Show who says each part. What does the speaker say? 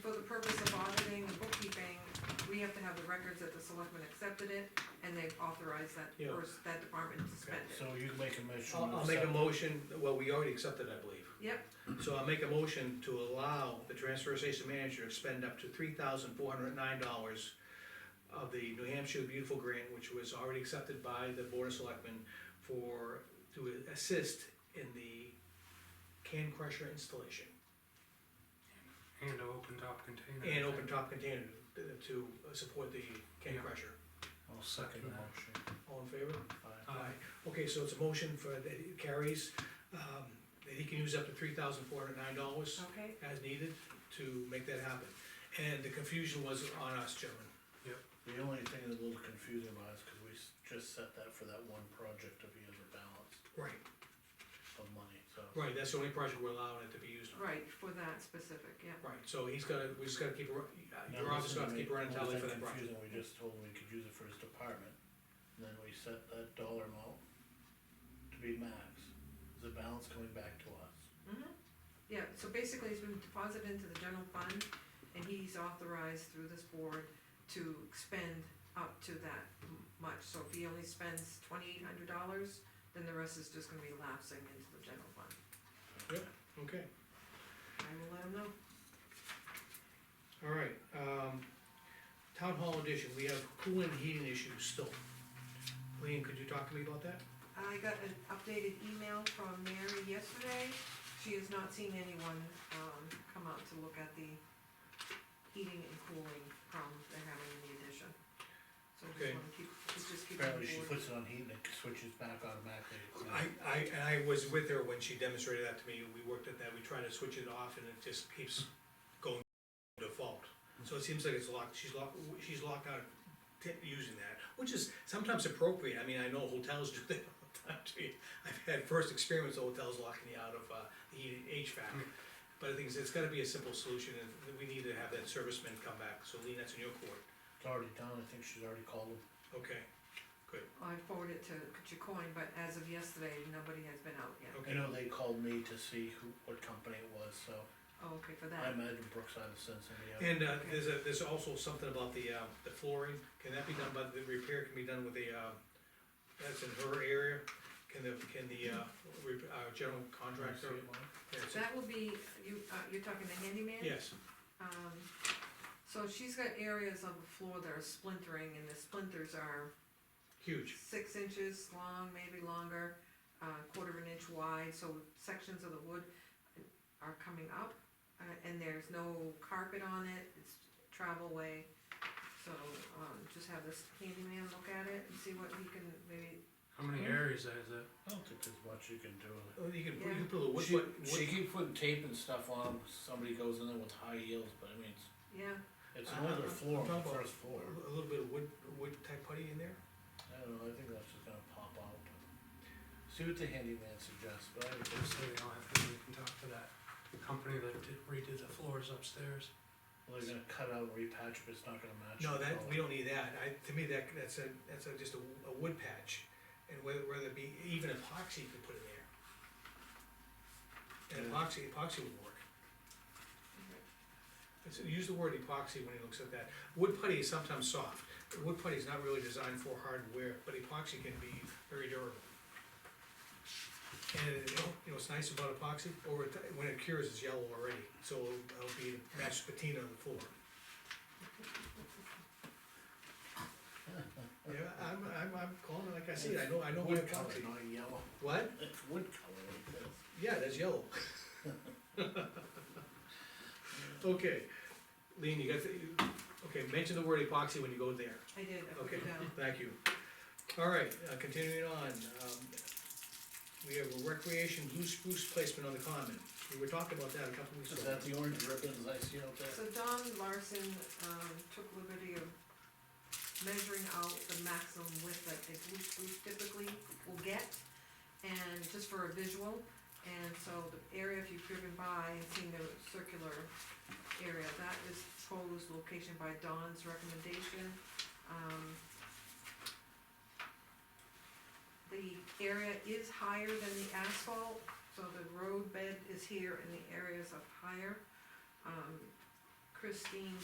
Speaker 1: records that the selectmen accepted it, and they've authorized that
Speaker 2: Yeah.
Speaker 1: person, that department to spend it.
Speaker 3: So you can make a motion.
Speaker 2: I'll,
Speaker 3: to
Speaker 2: I'll make a
Speaker 3: accept-
Speaker 2: motion, well, we already accepted, I believe.
Speaker 1: Yep,
Speaker 2: So I'll make a motion to allow the transfer station manager to expend up to three thousand four hundred nine dollars of the New Hampshire Beautiful Grant, which was already accepted by the Board of Selectmen for, to assist in the can crusher installation
Speaker 4: And an open top container.
Speaker 2: and open top container to- to support the can
Speaker 4: Yeah.
Speaker 2: crusher.
Speaker 3: I'll second the motion.
Speaker 2: All in favor?
Speaker 3: Aye.
Speaker 4: Aye.
Speaker 2: Okay, so it's a motion for, that it carries, um, that he can use up to three thousand four hundred nine dollars.
Speaker 1: okay,
Speaker 2: as needed to make that happen. And the confusion was on us, gentlemen.
Speaker 3: The only thing that's a little confusing about it is 'cause we s- just set that for that one project if he has a balance
Speaker 2: Right.
Speaker 3: of money, so.
Speaker 2: Right, that's the only project we're allowing it to be used on.
Speaker 1: right, for that specific, yeah.
Speaker 2: Right, so he's gotta, we just gotta keep, a ru- uh, your
Speaker 3: Now,
Speaker 2: office
Speaker 3: listen
Speaker 2: gotta
Speaker 3: to
Speaker 2: keep
Speaker 3: me,
Speaker 2: running
Speaker 3: only
Speaker 2: tally for
Speaker 3: thing
Speaker 2: that project.
Speaker 3: confusing, We just told him we could use it for his department, and then we set that dollar amount to be max, the balance coming back to us.
Speaker 1: Yeah, so basically, it's been deposited into the general fund, and he's authorized through this board to expend up to that m- much. So if he only spends twenty-eight hundred dollars, then the rest is just gonna be lapsing into the general fund.
Speaker 2: Yep. Okay,
Speaker 1: I will let him know.
Speaker 2: all right, um, town hall addition, we have cooling and heating issues still. Lean, could you talk to me about that?
Speaker 1: I got an updated email from Mary yesterday. She has not seen anyone, um, come out to look at the heating and cooling problems they're having in the addition. So we just
Speaker 2: Okay.
Speaker 1: wanna keep, we just keep. on
Speaker 3: Apparently she
Speaker 1: board.
Speaker 3: puts it on heat and it switches back automatically.
Speaker 2: I, I, and I was with her when she demonstrated that to me, we worked at that, we tried to switch it off and it just keeps going default. So it seems like it's locked, she's locked, she's locked out of t- using that, which is sometimes appropriate, I mean, I know hotels do that all the time too. I've had first experience of hotels locking you out of, uh, the heat- HVAC. But I think it's, it's gotta be a simple solution and we need to have that serviceman come back, so Lean, that's in your court,
Speaker 3: It's already done, I think she's already called him.
Speaker 2: okay,
Speaker 1: Oh, I forwarded it to Chicoine, but as of yesterday, nobody has been out yet.
Speaker 3: I
Speaker 2: okay,
Speaker 3: know they called me to see who, what company it was, so
Speaker 1: Oh, okay, for
Speaker 3: I
Speaker 1: that.
Speaker 3: imagine Brookside has sent somebody out.
Speaker 2: And uh, there's a, there's also something about the, uh, the flooring, can that be done by, the repair can be done with the, uh, that's in her area? Can the, can the, uh, re- uh, general contractor?
Speaker 3: See it, Mike?
Speaker 2: yeah, it's a-
Speaker 1: That will be, you, uh, you're talking the handyman?
Speaker 2: Yes,
Speaker 1: Um, so she's got areas on the floor that are splintering, and the splinters are
Speaker 2: huge,
Speaker 1: six inches long, maybe longer, uh, quarter of an inch wide, so sections of the wood are coming up, uh, and there's no carpet on it, it's travel way. So, um, just have this handyman look at it and see what he can maybe,
Speaker 4: How many areas is it?
Speaker 3: I don't think there's much you can do with it.
Speaker 2: Oh, you can, put- you
Speaker 1: Yeah.
Speaker 2: can put a wood,
Speaker 3: She,
Speaker 2: foot-
Speaker 3: she
Speaker 2: wood,
Speaker 3: keep putting tape and stuff on 'em, somebody goes in there with high heels, but I mean, it's,
Speaker 1: yeah,
Speaker 3: it's an
Speaker 2: Uh,
Speaker 3: older floor, on the
Speaker 2: double.
Speaker 3: first floor.
Speaker 2: a little bit of wood, wood type putty in there?
Speaker 3: I don't know, I think that's just gonna pop out, but, see what the handyman suggests, but I would
Speaker 4: Just
Speaker 3: just,
Speaker 4: so we don't have to, we can talk to that company that did redid the floors upstairs.
Speaker 3: well, they're gonna cut out and repatch, but it's not gonna match.
Speaker 2: No,
Speaker 3: the
Speaker 2: that,
Speaker 3: color.
Speaker 2: we don't need that, I, to me, that, that's a, that's a, just a, w- a wood patch, and whether, whether it be, even epoxy you could put in there. And
Speaker 3: Yeah.
Speaker 2: epoxy, epoxy would work. It's- Use the word epoxy when he looks at that. Wood putty is sometimes soft. Wood putty is not really designed for hardware, but epoxy can be very durable. And, you know, you know what's nice about epoxy? Over, ti- when it cures, it's yellow already, so it'll it'll be matched patina on the floor. Yeah, I'm, I'm, I'm calling it like I see it. I know, I know my
Speaker 3: Wood color,
Speaker 2: epoxy.
Speaker 3: not yellow,
Speaker 2: What?
Speaker 3: it's wood color like this.
Speaker 2: Yeah, that's yellow. Okay, Lean, you got, the- you- okay, mention the word epoxy when you go there,
Speaker 1: I did, I put
Speaker 2: okay,
Speaker 1: it down.
Speaker 2: thank you. All right, uh, continuing on, um, we have a recreation blue spruce placement on the common, we were talking about that a couple weeks
Speaker 3: Is
Speaker 2: ago.
Speaker 3: that the orange ribbons I see out
Speaker 1: So
Speaker 3: there?
Speaker 1: Don Larson, um, took liberty of measuring out the maximum width that a blue spruce typically will get, and just for a visual, and so the area, if you've driven by and seen the circular area, that is proposed location by Don's recommendation, um. The area is higher than the asphalt, so the road bed is here and the areas up higher. Um, Christine